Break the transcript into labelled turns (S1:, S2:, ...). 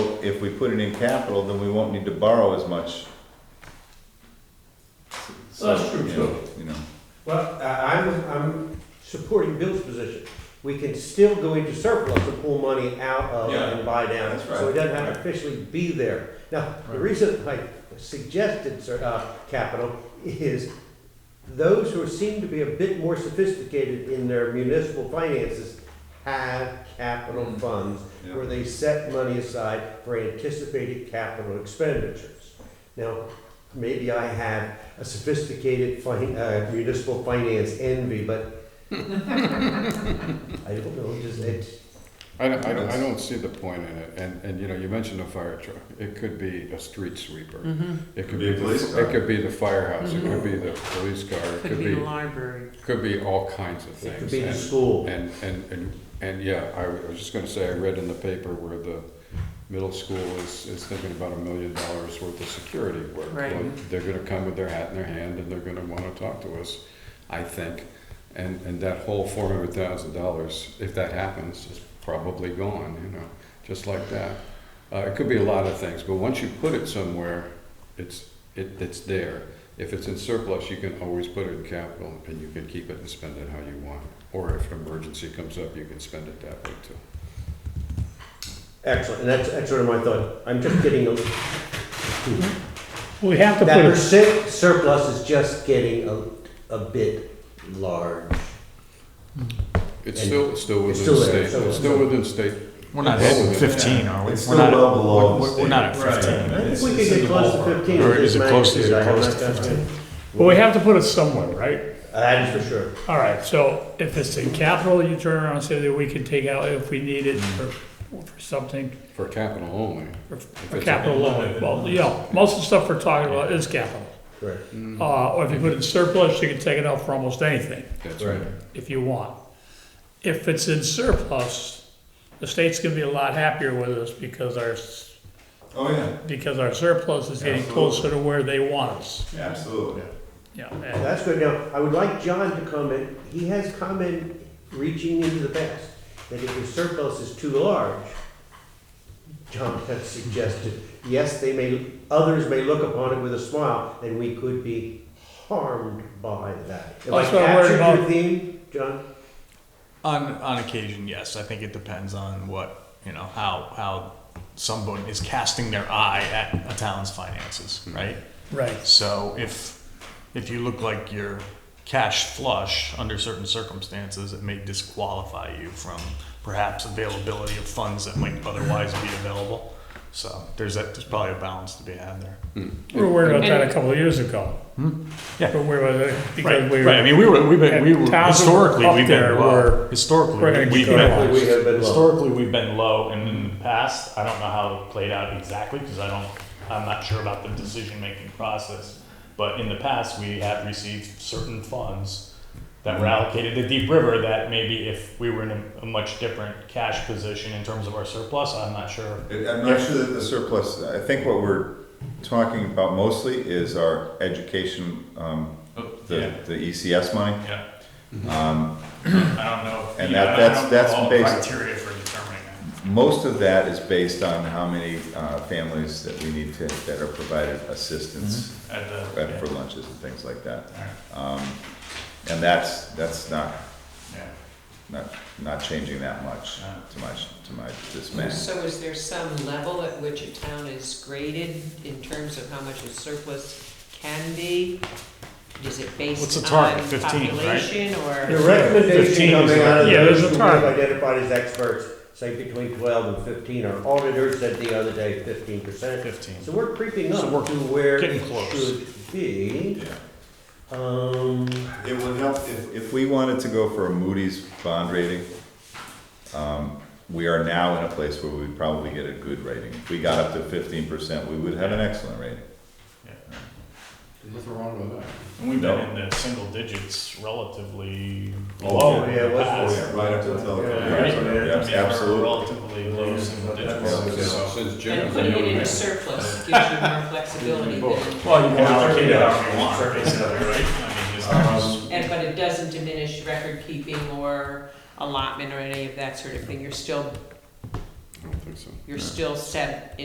S1: if we put it in capital, then we won't need to borrow as much.
S2: Well, that's true,
S1: you
S2: too.
S1: know, You know,
S3: Well, I- I'm, I'm supporting Bill's position. We can still go into surplus and pull money out of
S1: Yeah,
S3: and buy down.
S1: that's right.
S3: So it doesn't have to officially be there. Now, the reason I suggested, sur- uh, capital is those who seem to be a bit more sophisticated in their municipal finances have capital
S1: Mm.
S3: funds
S1: Yeah.
S3: where they set money aside for anticipated capital expenditures. Now, maybe I have a sophisticated fin- uh, municipal finance envy, but I don't know, just it,
S4: I don't, I don't, I don't see the point in it, and, and, you know, you mentioned a fire truck, it could be a street sweeper.
S5: Mm-hmm.
S4: It could
S1: Could be a
S4: be,
S1: police
S4: the-
S1: car.
S4: it could be the firehouse, it could be the police car, it
S5: Could be the library.
S4: could be all kinds of
S3: it could
S4: things.
S3: be the
S4: And-
S3: school.
S4: And, and, and, and, yeah, I was just gonna say, I read in the paper where the middle school is, is thinking about a million dollars worth of security work.
S5: Right.
S4: Well, They're gonna come with their hat in their hand, and they're gonna wanna talk to us, I think. And, and that whole four hundred thousand dollars, if that happens, is probably gone, you know, just like that. Uh, it could be a lot of things, but once you put it somewhere, it's, it, it's there. If it's in surplus, you can always put it in capital, and you can keep it and spend it how you want. Or if an emergency comes up, you can spend it that way too.
S3: Excellent, and that's, that's sort of my thought. I'm just getting, a-
S6: We have to
S3: that
S6: put,
S3: percent surplus is just getting a, a bit large.
S4: It's
S3: And
S4: still, still
S3: it's
S4: within
S3: still there,
S4: state,
S3: so-
S4: it's still within state.
S6: we're not at fifteen, are we?
S1: It's
S6: We're
S1: still
S6: not at-
S1: well below
S6: we're- We're not at
S1: state. Right.
S6: fifteen.
S3: I
S1: And
S3: think
S1: it's-
S3: we
S1: it's
S3: could get
S1: in the
S3: close to
S1: ballpark.
S3: fifteen.
S6: Or
S3: with
S6: is
S3: this
S6: it close to- is it
S3: magnitude. I have
S6: close
S3: not done
S6: to
S3: that.
S6: 15? But we have to put it somewhere, right?
S3: That is for sure.
S6: All right, so if it's in capital, you turn around and say that we can take out if we need it for, for something,
S4: For capital only.
S6: for- for
S4: it's a-
S6: capital loan. Well, you know, most of the stuff we're talking about is capital.
S3: Right.
S1: Mm-hmm.
S6: Uh, or if you put it in surplus, you can take it out for almost anything.
S4: That's right.
S6: if you want. If it's in surplus, the state's gonna be a lot happier with us because our, s-
S1: oh, yeah,
S6: because our surplus is getting
S1: Absolutely.
S6: closer to where they want us.
S1: yeah, absolutely.
S6: Yeah,
S3: Well,
S6: and-
S3: That's good. Now, I would like John to comment. He has comment reaching into the past, that if your surplus is too large, John has suggested, yes, they may, others may look upon it with a smile, and we could be harmed by that. Am I
S6: That's what I'm worried
S3: capturing your
S6: about.
S3: theme, John?
S7: On on occasion, yes. I think it depends on what you know how how someone is casting their eye at a town's finances, right?
S6: right,
S7: So if if you look like you're cash flush under certain circumstances, it may disqualify you from perhaps availability of funds that might otherwise be available. So there's that there's probably a balance to be had there.
S6: we were worried about that a couple of years ago.
S7: Yeah.
S6: We were worried about it because we
S7: Hmm? right. I mean, we were we've been we
S6: and
S7: were
S6: towns
S7: historically
S6: up
S7: we've
S6: there
S7: been
S6: were-
S7: low. Historically
S6: we're gonna
S7: we've
S6: keep
S7: been
S6: going.
S3: We have been low.
S7: Historically, we've been low, and in the past, I don't know how it played out exactly, because I don't, I'm not sure about the decision-making process. But in the past, we have received certain funds that were allocated to Deep River that maybe if we were in a, a much different cash position in terms of our surplus, I'm not sure.
S1: It- I'm not sure that the surplus, I think what we're talking about mostly is our education, um, the, the ECS money. Mm-hmm. Um,
S7: yeah. I don't know.
S1: and yeah, that- I that's- don't know that's all the based-
S7: Criteria for determining that.
S1: Most of that is based on how many, uh, families that we need to, that are provided assistance at- for lunches and things like that. Um, and that's, that's not, not, not changing that much, to my, to my dismay.
S8: So is there some level at which a town is graded in terms of how much a surplus can be? Is it
S7: What's
S8: based
S7: the
S8: on
S7: target? 15, right?
S8: population
S3: The
S8: or?
S3: recommendation
S7: 15 is
S3: coming out of
S7: right. Yeah,
S3: those
S7: there's a
S3: who we have
S7: target.
S3: identified as experts, say between twelve and fifteen, our auditor said the other day fifteen percent.
S7: Fifteen.
S3: So we're creeping
S7: So
S3: up
S7: we're
S3: to where
S7: getting
S3: it
S7: close.
S3: should be. Um,
S1: It would help if. If we wanted to go for a Moody's bond rating, um, we are now in a place where we'd probably get a good rating. If we got up to fifteen percent, we would have an excellent rating.
S4: What's wrong with that?
S7: And we've
S1: been
S7: been
S1: No.
S7: in the single digits relatively
S1: Oh,
S7: low
S1: low yeah.
S3: in the Yeah, what's- past.
S1: Right up until.
S7: Right.
S1: Yes, absolutely.
S7: Relatively low single digits.
S4: Since since Jim.
S8: And putting it in a surplus gives you more flexibility than,
S7: Well, you can allocate it however you want, Um, basically, right? I mean, just-
S8: and, but it doesn't diminish record keeping or allotment or any of that sort of thing. You're still,
S4: I don't think so.
S8: you're still set